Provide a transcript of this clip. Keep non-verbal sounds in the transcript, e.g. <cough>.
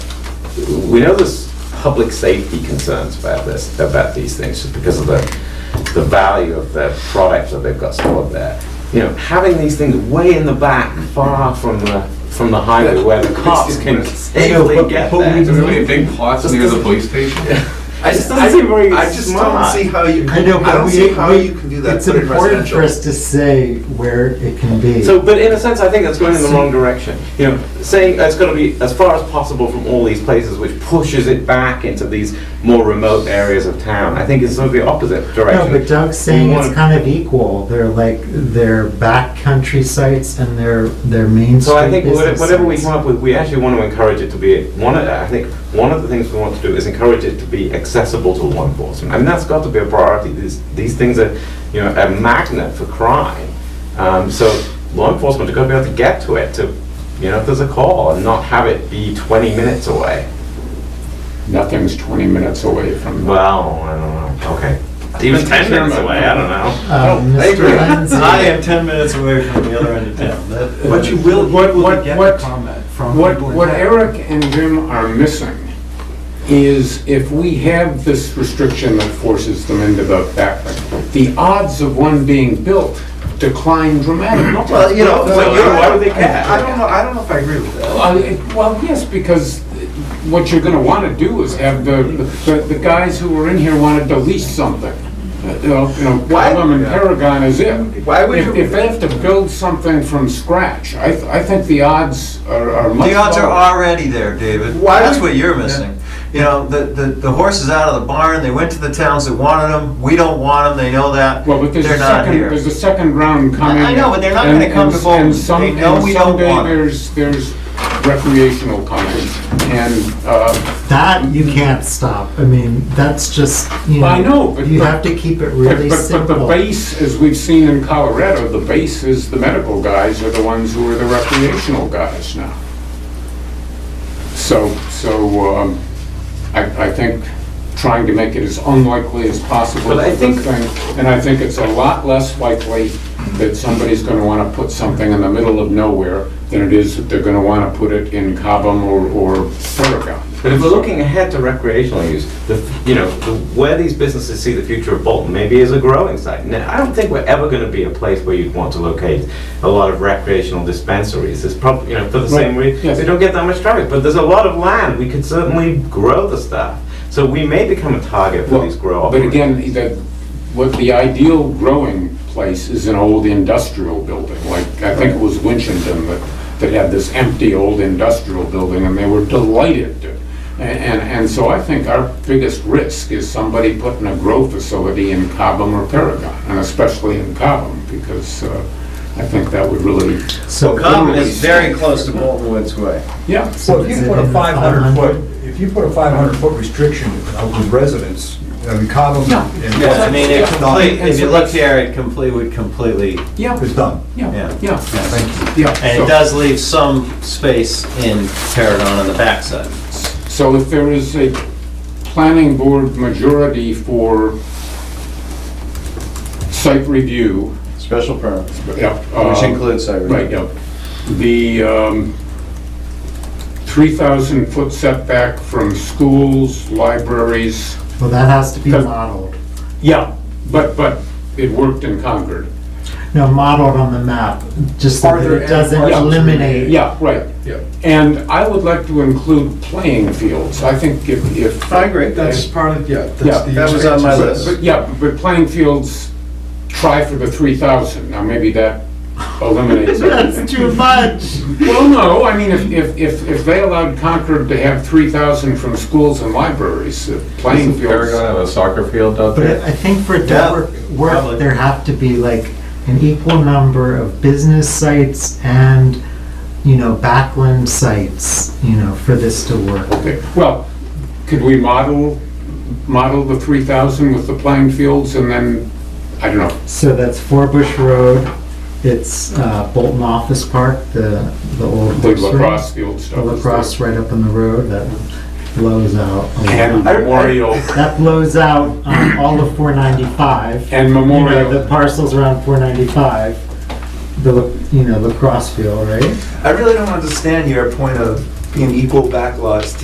we know there's public safety concerns about this, about these things, just because of the, the value of the product that they've got stored there. You know, having these things way in the back, far from the, from the highway where the cops can safely get there. There's really big plots near the police station. I just don't see very I just don't smart. see how you. I know, but I don't we- see how we- you can do that. It's put in important for us residential. to say where it can be. So, but in a sense, I think that's going in the wrong direction. You know, saying it's got to be as far as possible from all these places, which pushes it back into these more remote areas of town. I think it's sort of the opposite No, direction. but Doug's saying We it's wanna- kind of equal. They're like, they're backcountry sites and they're, they're main So I street think whate- business whatever we come sites. up with, we actually want to encourage it to be, one of, I think, one of the things we want to do is encourage it to be accessible to law enforcement. I mean, that's got to be a priority. These, these things are, you know, a magnet for crime. Um, so law enforcement have got to be able to get to it, to, you know, if there's a call and not have it be 20 minutes away. Nothing's 20 minutes away from. Well, I don't know, okay. Even 10 minutes away, I don't know. Um, Mr. I Lindsay, am 10 minutes away from the other end of town. That- But you will be What- able to what- get what- the comment from What, people in what town. Eric and Jim are missing is if we have this restriction that forces them into the back, the odds of one being built decline dramatically. Well, you know, Well, well, you know, I- why would they I- care? I don't know, I don't know if I agree with that. Uh, it- Well, yes, because what you're gonna wanna do is have the, the- the guys who were in here wanted to lease something. Uh, You know, you know, Why- Pelham and Paragon is it. Why would If- you- If they have to build something from scratch, I, th- I think the odds are are much The odds are lower. already there, David. Why That's would- what you're missing. You know, the, the, the horse is out of the barn, they went to the towns that wanted them, we don't want them, they know that, Well, but there's they're a not second, here. there's a second round coming. I know, but they're not and- gonna come and- to vote. and some- They know and we don't want Someday it. there's, there's recreational coming, and, uh, That you can't stop. I mean, that's just, you know. I know, but- You have to keep it but, really but- but the simple. base, as we've seen in Colorado, the base is the medical guys are the ones who are the recreational guys now. So, so, um, I, I think trying to make it as unlikely as possible But I is a good think- thing. And I think it's a lot less likely that somebody's gonna wanna put something in the middle of nowhere than it is that they're gonna wanna put it in Cobham or, or Paragon. But if we're looking ahead to recreational use, the, you know, the- where these businesses see the future of Bolton maybe is a growing site. Now, I don't think we're ever going to be a place where you'd want to locate a lot of recreational dispensaries. It's probably, you know, for the same Right, reason, yes. they don't get that much traffic. But there's a lot of land, we could certainly grow the stuff. So we may become a target for Well, these grow But operators. again, that, what the ideal growing place is an old industrial building, like, I think it was Winchton that, that had this empty old industrial building, and they were delighted. to- And, and, and so I think our biggest risk is somebody putting a grow facility in Cobham or Paragon, and especially in Cobham, because, uh, I think that would really, So Common is very close to Bolton Woods Way. yeah. Well, if Is you it put a in the five hundred 500? foot, if you put a five hundred foot restriction of the residents, I mean, Cobham and. Yeah, I mean, it Yeah. complete, if you look here, it complete, would completely, Yeah, It's done. yeah, Yeah. yeah. Thank Yeah. and so- it does leave some space in Paragon on the backside. So if there is a planning board majority for site review, Special permit, yep. which uh, includes site review. Right, yep. The um, 3,000 foot setback from schools, libraries. Well, that has to be Does- modeled. Yeah. But, but it worked in Concord. No, modeled on the map, just so Are that there it doesn't any parcels eliminate. Yeah, right. Yeah. And I would like to include playing fields. I think if, if. I agree. That's part of, yeah. that's Yeah, the that was on my expansion. list. But yeah, but playing fields, try for the three thousand, now maybe that eliminates <laughs> everything. That's too much. Well, no, I mean, if, if, if if they allowed Concord to have three thousand from schools and libraries, uh, playing fields. have a soccer field out But I I think for Yeah, Dover, work, probably. there have to be like an equal number of business sites and, you know, backland sites, you know, for this to work. Okay, Well, could we model, model the three thousand with the playing fields and then, I don't know, So that's Four Bush Road, it's uh, Bolton Office Park, the, the old the horse ring. lacrosse field The stuff? lacrosse right up on the road, that blows out. a lot. And <laughs> memorial, That blows out um, all of 495. and You know, memorial. the parcel's around four ninety-five, the, la- you know, lacrosse field, right? I really don't understand your point of being equal backlots to